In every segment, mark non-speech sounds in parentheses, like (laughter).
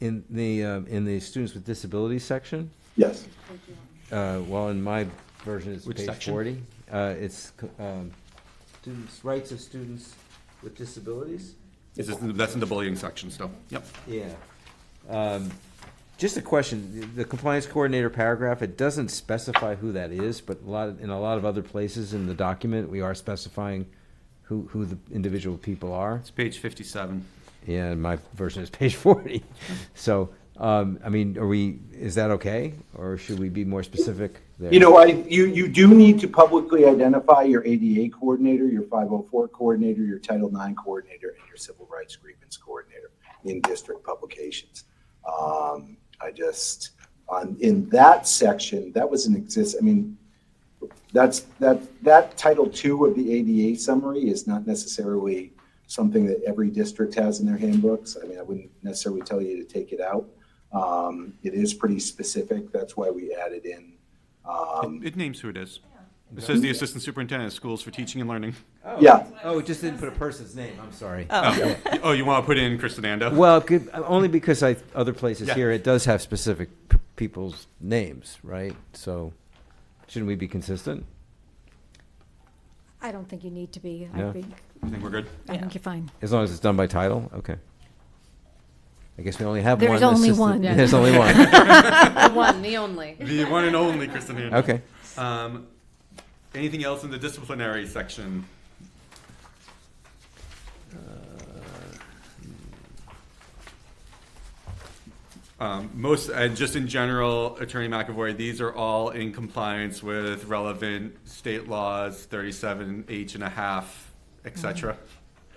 in the, um, in the students with disabilities section, Yes. uh, well, in my version, it's Which page section? forty. Uh, it's, um, students, rights of students with disabilities. Is this, that's in the bullying section still? Yep. Yeah. Um, Just a question, the- the compliance coordinator paragraph, it doesn't specify who that is, but a lot, of- in a lot of other places in the document, we are specifying who, who the individual people are. It's page fifty-seven. Yeah, and my version is page (laughs) forty. So, um, I mean, are we, is that okay? Or should we be more specific there? You know, I, you, you do need to publicly identify your ADA coordinator, your 504 coordinator, your Title IX coordinator, and your civil rights grievance coordinator in district publications. Um, I just, on, in that section, that was an exist, I mean, that's, that, that Title II of the ADA summary is not necessarily something that every district has in their handbooks. I mean, I wouldn't necessarily tell you to take it out. Um, It is pretty specific. That's why we added in Um, It it names who it is. It says the assistant superintendent of schools for teaching and learning. Yeah. Oh, it just didn't put a person's name, I'm sorry. Oh, oh, you want to put in Chris Anando? Well, good- only because I, other places Yeah. here, it does have specific p- people's names, right? So shouldn't we be consistent? I don't think you need to be. Yeah. I think, I think we're (laughs) good. I think you're fine. As long as it's done by title, okay. I guess we only have one. There's only assistant- (laughs) one. There's only (laughs) one, The one, the only. The one and only Chris Anando. okay. Um, anything else in the disciplinary section? Um, most, and just in general, Attorney McAvoy, these are all in compliance with relevant state laws, thirty-seven H and a half, et cetera.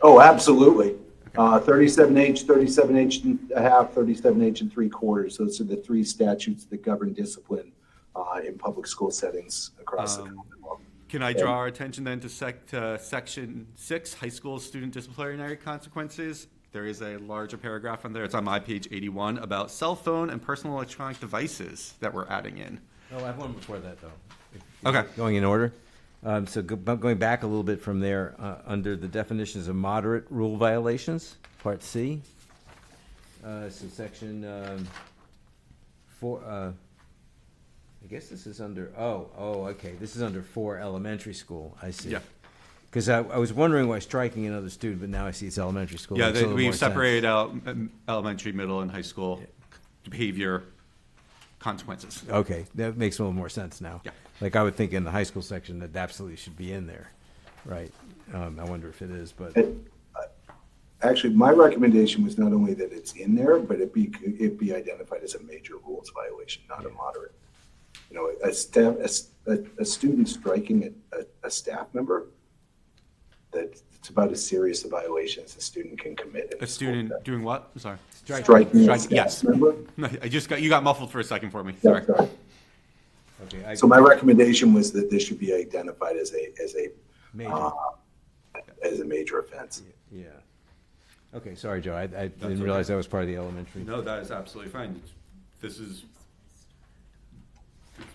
Oh, absolutely. Uh, 37H, 37H and a half, 37H and three quarters. Those are the three statutes that govern discipline uh, in public school settings across the Um, Commonwealth. Can I draw our attention then to sec, to section six, high school student disciplinary consequences? There is a larger paragraph on there, it's on my page eighty-one, about cell phone and personal electronic devices that we're adding in. No, I have one before that, though. Okay, Going in order. Um, so go, bu- going back a little bit from there, uh, under the definitions of moderate rule violations, part C. Uh, so section, um, four, uh, I guess this is under, oh, oh, okay, this is under four elementary school, I see. Yeah. Cause I, I was wondering why striking another student, but now I see it's elementary school. yeah, Makes a they- little more we've sense. separated out um, elementary, middle, and high school behavior consequences. Okay, that makes a little more sense now. Yeah. Like I would think in the high school section that absolutely should be in there, right? Um, I wonder if it is, but Actually, my recommendation was not only that it's in there, but it be, it be identified as a major rules violation, not a moderate. You know, a staff, a s- a, a student striking a, a, a staff member, that it's about as serious a violation as a student can commit. in A school student setting. doing what? I'm Sorry. (laughs) Striking a Strike- staff yes. member? No, I just got, you got muffled for a second for me, Yeah, sorry. sorry. okay, I, So my recommendation was that this should be identified as a, as a, major, uh, as a major offense. yeah. Okay, sorry, Joe, I, I didn't okay. realize that was part of the elementary. No, that is absolutely fine. This is,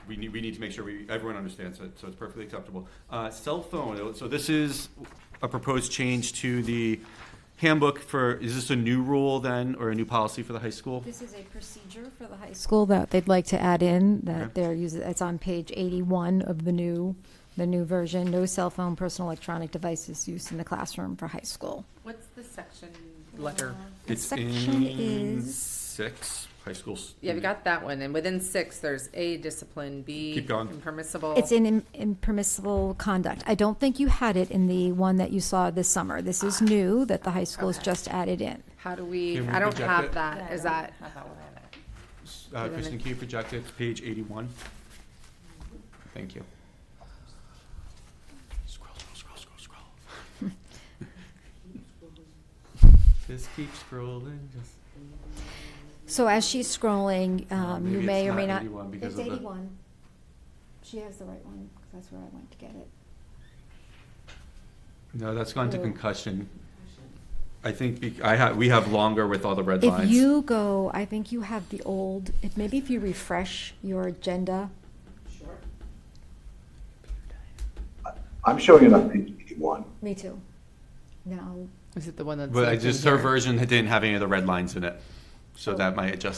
we need, we need to make sure we, everyone understands it, so it's perfectly acceptable. Uh, cell phone, so this is a proposed change to the handbook for, is this a new rule then, or a new policy for the high school? This is a procedure for the high school that they'd like to add in, Okay. that they're using, it's on page 81 of the new, the new version. No cell phone, personal electronic devices used in the classroom for high school. What's the section? It's section in is- six, high schools. Yeah, we got that one. And within six, there's A, discipline, B. Keep going. Impermissible. It's in im- impermissible conduct. I don't think you had it in the one that you saw this summer. This is new that the high school's Okay. just added in. How do we, Can we I don't reject it? have that. Is that? Uh, Kristen, can you project it to page eighty-one? Thank you. Scroll, scroll, scroll, scroll, scroll. (laughs) Just keep scrolling, just. So as she's scrolling, No, um, you Uh, maybe may it's or may not not. 81 because of the- She has the right one, because that's where I went to get it. No, that's gone to Or- concussion. I think bec- I have, we have longer with all the red lines. If you go, I think you have the old, if, maybe if you refresh your agenda. I'm showing it on page eighty-one. Me too. Now, Is it the one that's? But I just, her version didn't have any of the red lines in it. Oh. So that might adjust